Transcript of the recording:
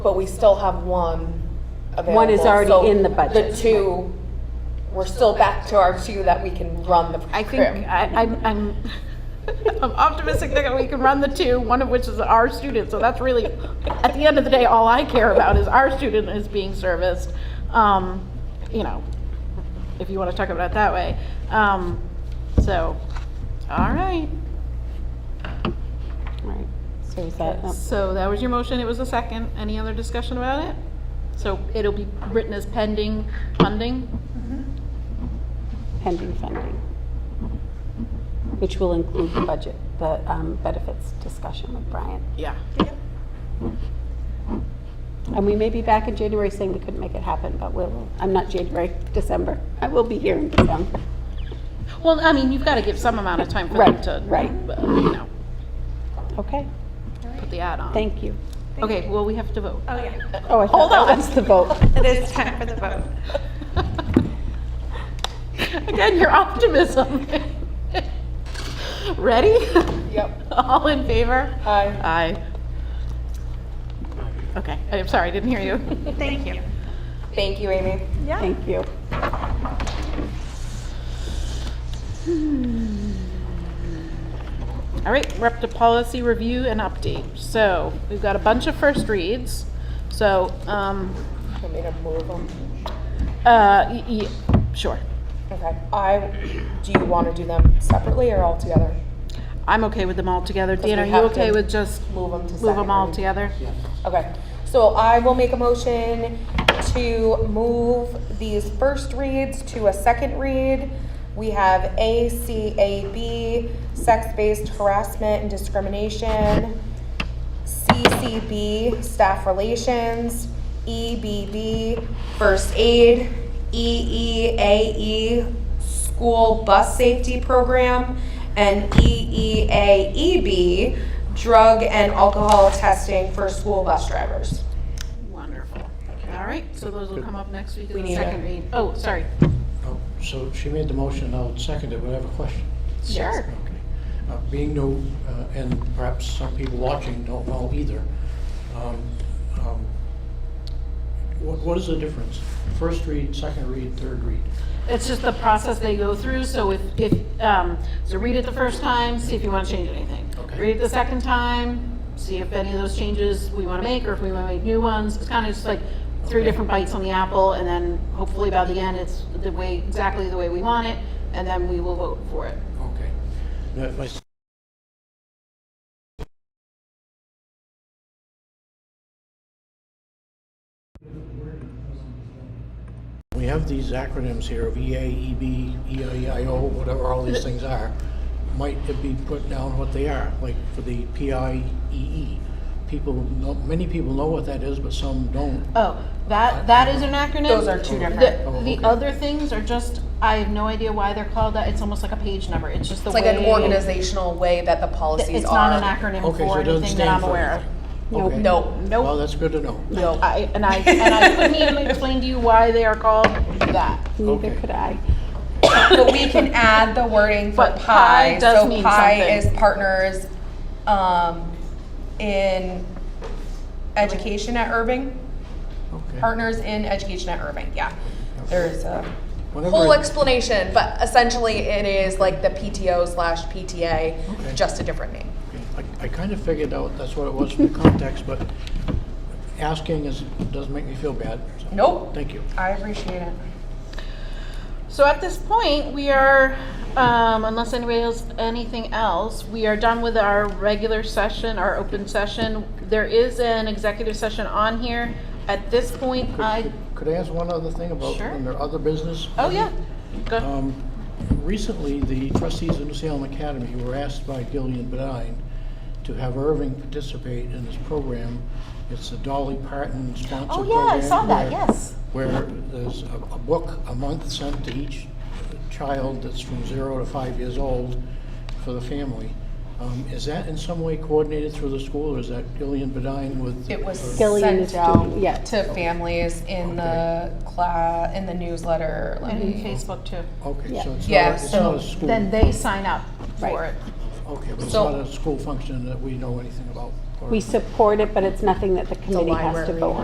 But we still have one available. One is already so in the budget. The two, we're still back to our two that we can run the I think program. I, I'm, I'm, I'm optimistic that we can run the two, one of which is our student. So that's really, at the end of the day, all I care about is our student is being serviced. Um, you know, if you want to talk about it that way. Um, so, all right. Right, so is that, oh, So that was your motion. It was a second. Any other discussion about it? So it'll be written as pending funding. pending funding, which will include the budget, the um, benefits discussion with Brian. Yeah. And we may be back in January saying we couldn't make it happen, but we'll, I'm not January, December. I will be here in December. Well, I mean, you've got to give some amount of time for Right, them to, right. uh, you know, Okay, put the ad on. thank you. Okay, well, we have to vote. Oh, yeah. Oh, I thought Hold that on. was the vote. It is time for the vote. Again, your optimism. Ready? Yep. All in favor? Hi. Aye. Okay, I'm sorry, I didn't hear you. Thank you. Thank you, Amy. Yeah. Thank you. All right, we're up to policy review and update. So we've got a bunch of first reads. So, um, Want me to move 'em? uh, y- y- sure. Okay. I, do you want to do them separately or all together? I'm okay with them all together. Dan, we are you have okay to with just Move them to second? move them all reading? together? Okay, so I will make a motion to move these first reads to a second read. We have A, C, A, B, sex-based harassment and discrimination. CCB, staff relations. EBB, first aid. E, EEAE, school bus safety program. And E EEAEB, E drug and alcohol testing for school bus drivers. Wonderful. All right, so those will come up next week in We the need second a- read. Oh, sorry. Oh, So she made the motion, I'll second it, but I have a question. Sure. Okay. Uh, Being new, uh, and perhaps some people watching don't know either, um, um, what what is the difference? First read, second read, third read? It's just the process they go through, so if, if, um, so read it the first time, see if you want to change anything. Okay. Read it the second time, see if any of those changes we want to make, or if we want to make new ones. It's kind of just like three Okay. different bites on the apple, and then hopefully by the end, it's the way, exactly the way we want it, and then we will vote for it. Okay. Now, my s- We have these acronyms here of E EA, EB, EIO, whatever all these things are. Might it be put down what they are, like for the PIEE? E? People, know- many people know what that is, but some don't. Oh, that, that is an acronym? Those are two different- The- Oh, The okay. other things are just, I have no idea why they're called that. It's almost like a page number. It's just the It's way. like an organizational way that the policies It's not an are. acronym Okay, so for it doesn't anything that stand I'm for aware of. anything. Nope. Okay. No, Well, Nope. that's good to know. no. I, and I, and I couldn't even explain to you why they are called that. Neither Okay. could I. But we can add the wording for But PI. pie does So mean PI something. is partners um, in education at Irving. Okay. Partners in education at Irving, yeah. There's a Whenever whole it- explanation, but essentially it is like the PTO slash PTA, Okay. just a different name. I- I kind of figured out that's what it was from context, but asking is, doesn't make me feel bad. so Nope, Thank you. I appreciate it. So at this point, we are, um, unless anybody else, anything else, we are done with our regular session, our open session. There is an executive session on here. At this point, I, Could I ask one other thing about, Sure. under other business? oh yeah, go, Um, Recently, the trustees of New Salem Academy were asked by Gillian Bedine to have Irving participate in this program. It's the Dolly Parton Oh, sponsored program. yeah, I saw that, where- yes. Where there's a a book a month sent to each child that's from zero to five years old for the family. Um, Is that in some way coordinated through the school, or is that Gillian Bedine with? It was Gillian sent is out doing- yeah. to families in the class, in the newsletter. Let and me- Facebook too. Okay, so it's Yeah, not, it's so not a school, Then Mm-hmm. they sign up for Right. it. okay, but it's So- not a school function that we know anything about. or- we support it, but it's nothing that the committee has to library. vote on.